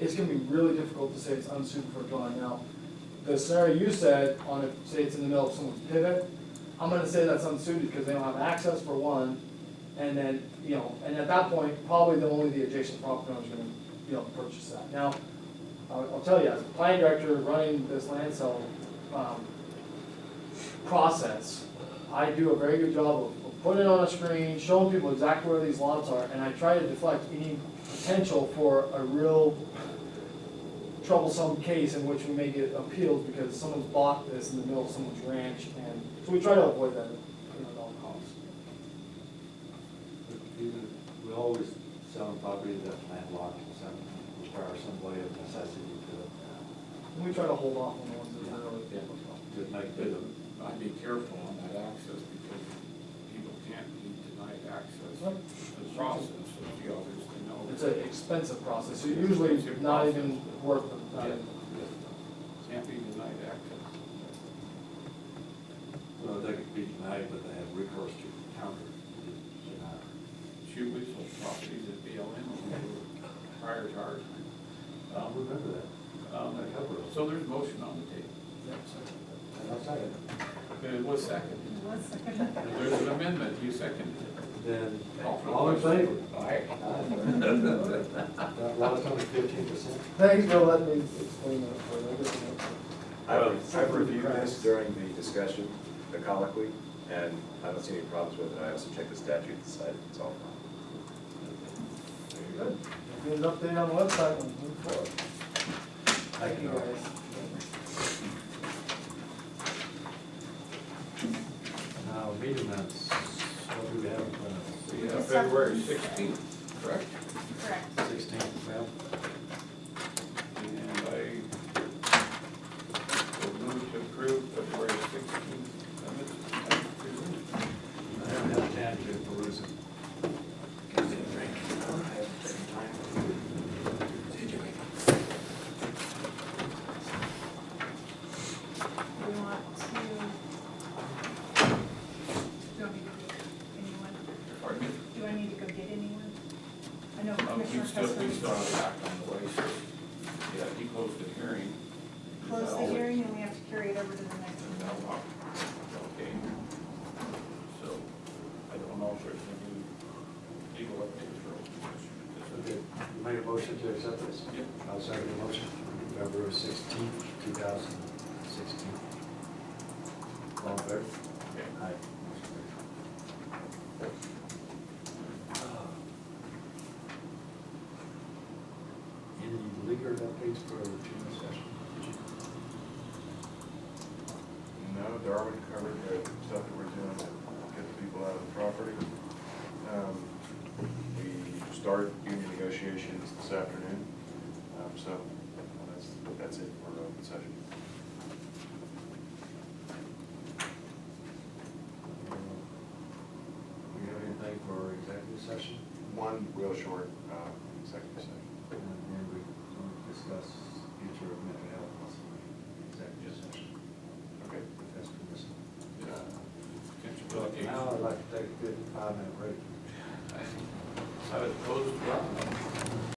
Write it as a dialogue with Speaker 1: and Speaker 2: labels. Speaker 1: it's gonna be really difficult to say it's unsuited for dwelling. Now, the scenario you said, on if, say it's in the middle of someone's pivot, I'm gonna say that's unsuited because they don't have access for one, and then, you know, and at that point, probably the only the adjacent property owner's gonna, you know, purchase that. Now, I'll, I'll tell you, as a planning director running this land sale, um, process, I do a very good job of of putting it on a screen, showing people exactly where these lots are, and I try to deflect any potential for a real troublesome case in which we may get appeals because someone's bought this in the middle of someone's ranch, and, so we try to avoid that, you know, at all costs.
Speaker 2: But even, we always sell property that's landlocked, so require some way of necessity
Speaker 1: And we try to hold off on the ones that are really.
Speaker 2: Yeah. to, to make
Speaker 3: But
Speaker 2: the,
Speaker 3: I'd be careful on that access because people can't be denied access to the process of the others to know.
Speaker 1: It's an expensive process, so usually it's not even worth the
Speaker 3: Yeah.
Speaker 1: time.
Speaker 3: Can't be denied access.
Speaker 2: well, they could be denied, but they have recourse to counter, to deny.
Speaker 3: Shoot, we sold properties at BLM when we were prior to our time.
Speaker 2: I don't remember that.
Speaker 3: Um,
Speaker 2: I cover it.
Speaker 3: So there's motion on the table.
Speaker 2: And I'll second.
Speaker 3: It was seconded.
Speaker 4: One second.
Speaker 3: There's an amendment, you seconded it.
Speaker 2: Then,
Speaker 3: Call for the
Speaker 2: all in favor?
Speaker 3: question. Aye.
Speaker 2: That last one is fifteen percent.
Speaker 1: Thanks for letting me explain that for you. I guess it makes sense.
Speaker 5: I've I've reviewed this during the discussion, the colloquy, and I don't see any problems with it. I also checked the statute and decided it's all fine.
Speaker 1: Good. Get an update on the website when we move forward. Thank you, guys.
Speaker 2: Now, meeting minutes, what do we have in front of
Speaker 3: We have February sixteenth, correct?
Speaker 4: Correct.
Speaker 2: us? Sixteenth, well,
Speaker 3: And I will move to approve February sixteenth amendment.
Speaker 2: I haven't had time to peruse it.
Speaker 4: We want to. Do I need to go get anyone?
Speaker 3: Pardon me?
Speaker 4: Do I need to go get anyone? I know
Speaker 3: Um,
Speaker 4: Oh, Commissioner
Speaker 3: We still, we still
Speaker 4: Custer
Speaker 3: have it act on the way, so, yeah, he closed the hearing.
Speaker 4: closed the hearing and we have to carry it over to the next
Speaker 3: And
Speaker 4: one.
Speaker 3: now, uh, okay. So, I don't know if there's any legal updates for open
Speaker 2: Okay,
Speaker 3: session.
Speaker 2: you made a motion to accept this?
Speaker 3: Yep.
Speaker 2: I'll second the motion, February sixteenth, two thousand sixteen. All in favor?
Speaker 3: Okay.
Speaker 2: Aye. Uh, Any legal updates for the June session?
Speaker 6: No, Darwin covered the stuff that we're doing to get the people out of the property. Um, We start union negotiations this afternoon, um, so that's, that's it for open session.
Speaker 2: We have anything for executive session?
Speaker 6: One real short uh, executive session.
Speaker 2: And then we want to discuss future of mental health possibly, executive session,
Speaker 6: Okay. uh,
Speaker 2: if that's permissible.
Speaker 3: Potential
Speaker 2: Now
Speaker 3: litigation.
Speaker 2: I'd like to take a good five minute break.